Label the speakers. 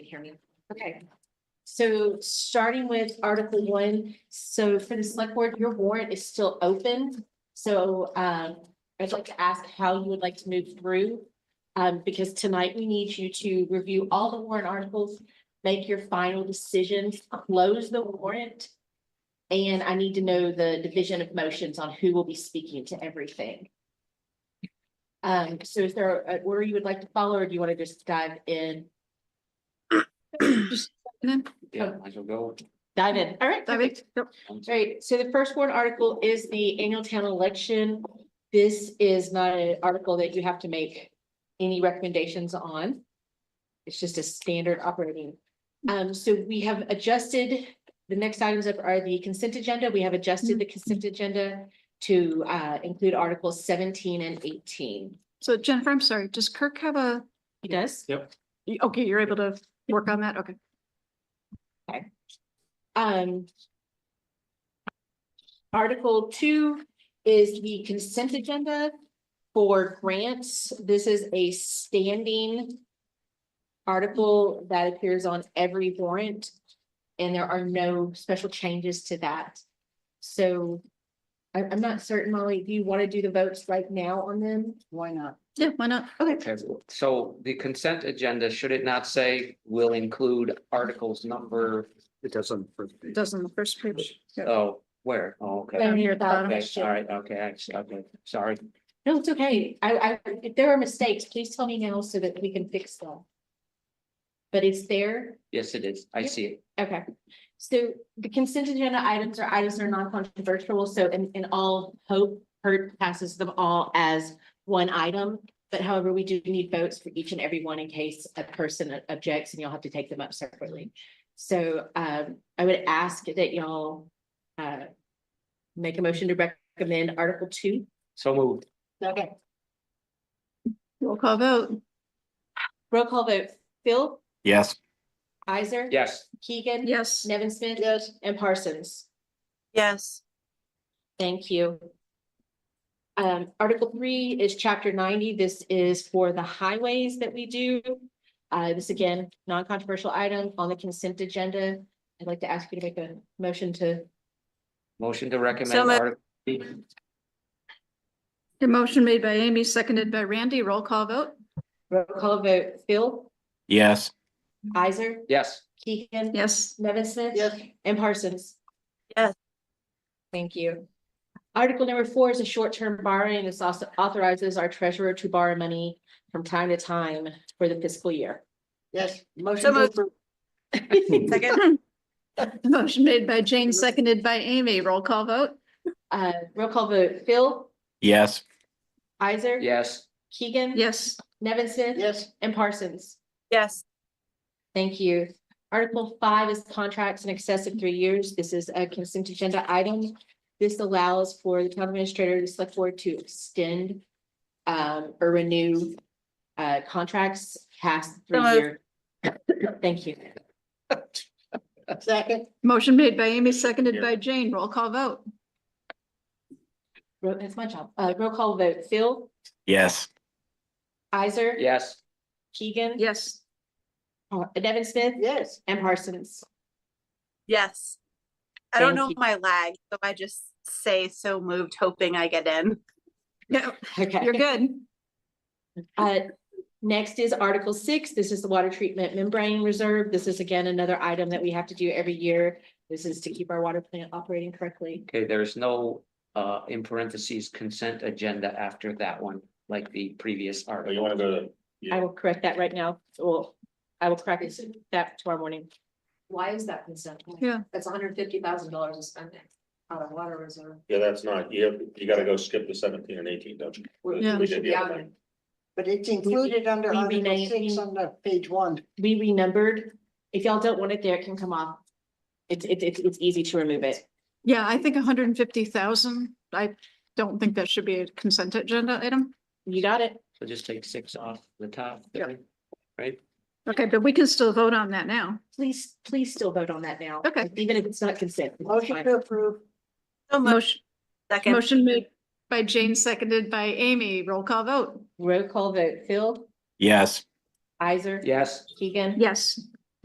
Speaker 1: hear me. Okay. So starting with Article one, so for the select board, your warrant is still open. So um, I'd like to ask how you would like to move through. Um, because tonight we need you to review all the warrant articles, make your final decision, close the warrant. And I need to know the division of motions on who will be speaking to everything. Um, so is there an order you would like to follow, or do you want to just dive in?
Speaker 2: Yeah, might as well go.
Speaker 1: Dive in, all right.
Speaker 3: Dive in.
Speaker 1: perfect. Right, so the first warrant article is the annual town election. This is not an article that you have to make any recommendations on. It's just a standard operating. Um, so we have adjusted, the next items up are the consent agenda. We have adjusted the consent agenda to uh include articles seventeen and eighteen.
Speaker 3: So Jennifer, I'm sorry, does Kirk have a,
Speaker 1: He does?
Speaker 3: y- okay, you're able to work on that? Okay.
Speaker 1: Um. Article two is the consent agenda for grants. This is a standing. Article that appears on every warrant. And there are no special changes to that. So. I, I'm not certain, Molly, do you want to do the votes right now on them?
Speaker 4: Why not?
Speaker 3: Yeah, why not?
Speaker 2: Okay, so the consent agenda, should it not say will include articles number,
Speaker 4: It doesn't.
Speaker 3: It does on the first page. Yeah.
Speaker 2: oh, where? Oh, okay.
Speaker 1: Down here at the bottom.
Speaker 2: Okay, all right, okay, I see, okay, sorry.
Speaker 1: Uh, No, it's okay. I, I, if there are mistakes, please tell me now so that we can fix them. But it's there.
Speaker 2: Yes, it is. I
Speaker 1: Yep.
Speaker 2: see it.
Speaker 1: Okay, so the consent agenda items are items that are non-controversial, so in, in all hope, Hurt passes them all as one item. But however, we do need votes for each and every one in case a person objects and you'll have to take them up separately. So, um, I would ask that y'all, uh, make a motion to recommend Article Two.
Speaker 2: So moved.
Speaker 1: Okay.
Speaker 3: Roll call vote.
Speaker 1: Roll call vote, Phil,
Speaker 4: Yes.
Speaker 1: Isaac.
Speaker 2: Yes,
Speaker 1: Keegan.
Speaker 3: Yes.
Speaker 1: Nevin Smith. Yes. And Parsons.
Speaker 5: Yes,
Speaker 1: Thank you. Um, Article three is chapter ninety. This is for the highways that we do. Uh, this again, non-controversial item on the consent agenda. I'd like to ask you to make a motion to,
Speaker 2: motion to recommend.
Speaker 5: So moved.
Speaker 2: article.
Speaker 3: The motion made by Amy, seconded by Randy. Roll call vote.
Speaker 1: roll call vote, Phil,
Speaker 4: Yes.
Speaker 1: Isaac,
Speaker 2: Yes,
Speaker 1: Keegan.
Speaker 3: Yes.
Speaker 1: Nevin Smith. And Parsons.
Speaker 5: Yes.
Speaker 1: Thank you. Article number four is a short-term borrowing. This also authorizes our treasurer to borrow money from time to time for the fiscal year.
Speaker 4: Yes.
Speaker 5: So
Speaker 4: Motion
Speaker 5: moved.
Speaker 4: to
Speaker 5: second,
Speaker 3: Motion made by Jane, seconded by Amy. Roll call vote.
Speaker 1: Uh, roll call vote, Phil,
Speaker 4: Yes.
Speaker 1: Isaac.
Speaker 2: yes,
Speaker 1: Keegan.
Speaker 3: Yes.
Speaker 1: Nevin Smith.
Speaker 4: Yes.
Speaker 1: And Parsons.
Speaker 5: yes,
Speaker 1: Thank you. Article five is contracts in excess of three years. This is a consent agenda item. This allows for the town administrator to select board to extend um, or renew uh, contracts past three
Speaker 5: moved.
Speaker 1: year. Thank you.
Speaker 4: Second.
Speaker 3: Motion made by Amy, seconded
Speaker 4: Yeah.
Speaker 3: by Jane. Roll call vote.
Speaker 1: Ro- That's my job. Uh, roll call vote. Phil,
Speaker 4: Yes.
Speaker 1: Isaac.
Speaker 2: yes,
Speaker 1: Keegan.
Speaker 3: Yes.
Speaker 1: uh, Nevin Smith.
Speaker 4: Yes.
Speaker 1: And Parsons.
Speaker 5: yes. I
Speaker 1: Thank
Speaker 5: don't know
Speaker 1: you.
Speaker 5: my lag, so I just say so moved, hoping I get in.
Speaker 3: Yeah,
Speaker 1: Okay.
Speaker 3: you're good.
Speaker 1: Uh, next is Article six. This is the water treatment membrane reserve. This is again another item that we have to do every year. This is to keep our water plant operating correctly.
Speaker 2: okay, there is no uh in parentheses consent agenda after that one, like the previous
Speaker 6: Oh, you
Speaker 2: article.
Speaker 6: wanna go to,
Speaker 1: I will correct that right now. Well, I will correct that tomorrow morning. Why is that consent?
Speaker 3: Yeah.
Speaker 1: That's hundred fifty thousand dollars of spending out of water reserve.
Speaker 6: yeah, that's not, you, have- you gotta go skip the seventeen and eighteen, don't you?
Speaker 3: Yeah.
Speaker 6: We did the other one.
Speaker 4: But it's included under
Speaker 1: we
Speaker 4: Article
Speaker 1: rename-
Speaker 4: six on the page one.
Speaker 1: We renumbered. If y'all don't want it there, it can come off. It's, it's, it's, it's easy to remove it.
Speaker 3: Yeah, I think hundred and fifty thousand. I don't think that should be a consent agenda item.
Speaker 1: You got it?
Speaker 2: So just take six off the top.
Speaker 3: Yeah.
Speaker 2: Right?
Speaker 3: Okay, but we can still vote on that now.
Speaker 1: Please, please still vote on that now.
Speaker 3: Okay.
Speaker 1: Even if it's not consent. it's
Speaker 4: Motion
Speaker 1: fine.
Speaker 4: to approve.
Speaker 5: So moved,
Speaker 3: Motion,
Speaker 5: second,
Speaker 3: motion made by Jane, seconded by Amy. Roll call vote.
Speaker 1: Roll call vote, Phil,
Speaker 4: Yes.
Speaker 1: Isaac.
Speaker 2: Yes,
Speaker 1: Keegan.
Speaker 3: Yes.